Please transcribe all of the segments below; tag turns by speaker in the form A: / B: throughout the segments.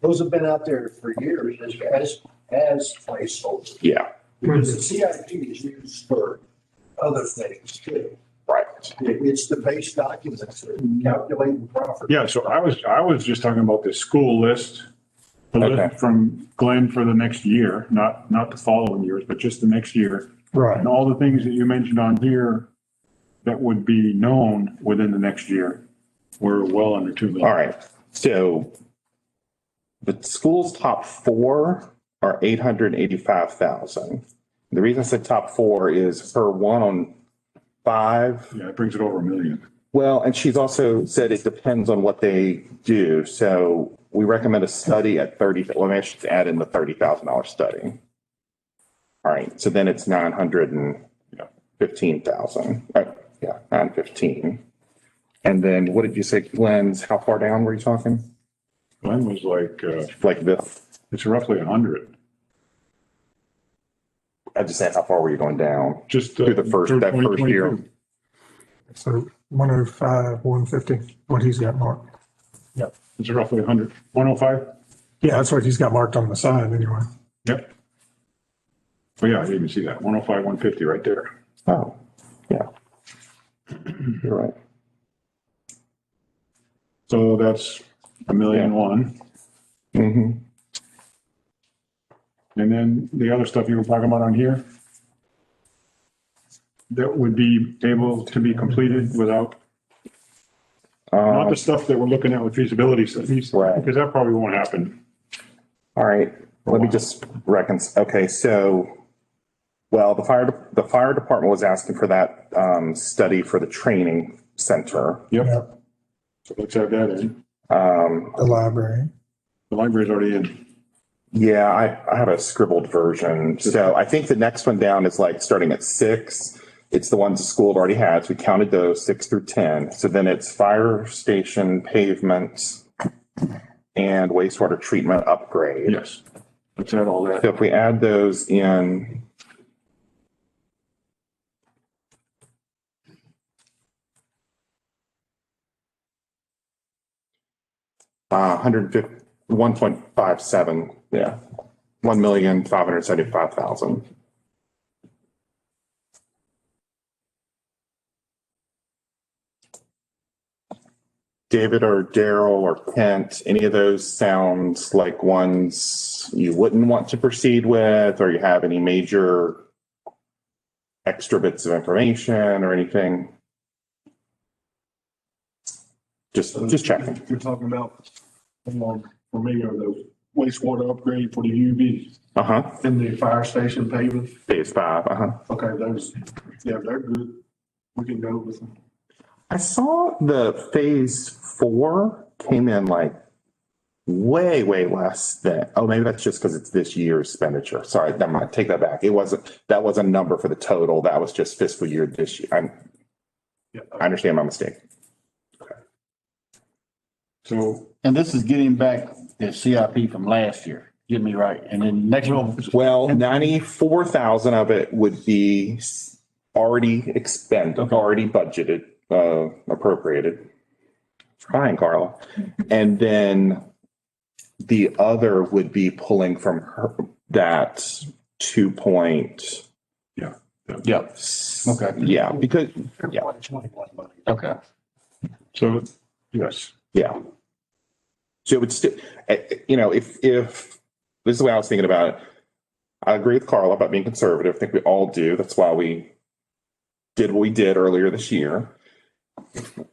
A: Those have been out there for years as, as, as placeholders.
B: Yeah,
A: Because the CIP is used for other things too.
B: right.
A: It- It's the base documents that calculate the profit.
C: Yeah, so I was, I was just talking about the school list, the
B: Okay.
C: list from Glenn for the next year, not, not the following years, but just the next year.
D: Right.
C: And all the things that you mentioned on here that would be known within the next year were well under two million.
B: All right, so the school's top four are eight hundred eighty-five thousand. The reason I said top four is her one on five
C: Yeah, it brings it over a million.
B: Well, and she's also said it depends on what they do. So we recommend a study at thirty, well, maybe I should add in the thirty thousand dollar study. All right, so then it's nine hundred and fifteen thousand, uh, yeah, nine fifteen. And then what did you say, Glenn's, how far down were you talking?
C: Glenn was like, uh,
B: Like this,
C: it's roughly a hundred,
B: I just said, how far were you going down?
C: just. uh,
B: Through the first- that first year.
D: So one oh five, one fifty, what he's got marked.
C: It's roughly a hundred, one oh five?
D: Yeah, that's what he's got marked on the side anyway.
C: Yep. Oh, yeah, I didn't even see that. One oh five, one fifty right there.
B: Oh, yeah. You're right.
C: So that's a million one.
B: hmm
C: And then the other stuff you were talking about on here that would be able to be completed without, not
B: Um,
C: the stuff that we're looking at with feasibility studies.
B: Right.
C: Because that probably won't happen.
B: All right, let me just reckon, okay, so, well, the fire, the fire department was asking for that um, study for the training center.
C: Yep. So let's add that in.
B: Um,
D: The library.
C: The library's already in.
B: Yeah, I, I have a scribbled version, so I think the next one down is like starting at six. It's the ones the school had already had, so we counted those, six through 10. So then it's fire station pavement and wastewater treatment upgrade.
C: Yes. Let's add all that.
B: So if we add those in. Uh, hundred fifty, one point five seven, yeah, one million, five hundred seventy-five thousand. David or Daryl or Kent, any of those sounds like ones you wouldn't want to proceed with, or you have any major extra bits of information or anything? Just, just checking.
C: You're talking about, um, for me, are the wastewater upgrade for the UV
B: Uh huh.
A: In the fire station pavement,
B: Phase five, uh huh.
A: okay, those, yeah, they're good. We can go with them.
B: I saw the phase four came in like way, way less than, oh, maybe that's just because it's this year's expenditure. Sorry, never mind. Take that back. It wasn't, that was a number for the total. That was just fiscal year this year. I'm,
A: Yeah.
B: I understand my mistake.
C: So
E: And this is getting back the CIP from last year, get me right, and then next one,
B: Well, ninety-four thousand of it would be s- already expended, already budgeted, uh, appropriated. Trying, Carla. And then the other would be pulling from her, that two point.
E: yeah, okay,
B: Yeah, because, Yeah.
A: Twenty-one money.
E: okay.
C: So, yes,
B: yeah. So it would still, you know, if, if, this is the way I was thinking about it. I agree with Carla about being conservative. I think we all do. That's why we did what we did earlier this year.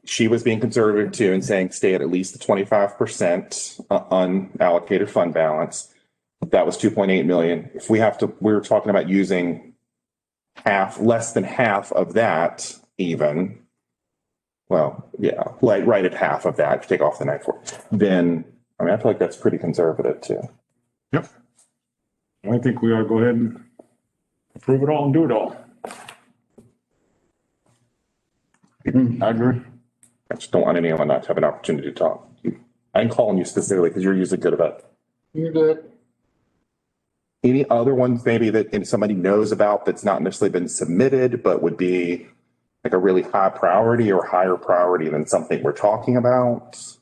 B: She was being conservative too and saying stay at at least the twenty-five percent unallocated fund balance. That was two point eight million. If we have to, we were talking about using half, less than half of that even. Well, yeah, like right at half of that, if you take off the nine four, then, I mean, I feel like that's pretty conservative too.
C: I think we ought to go ahead and approve it all and do it all.
E: I agree.
B: I just don't want anyone not to have an opportunity to talk. I'm calling you specifically because you're usually good about.
E: You're good.
B: Any other ones maybe that if somebody knows about that's not necessarily been submitted, but would be like a really high priority or higher priority than something we're talking about?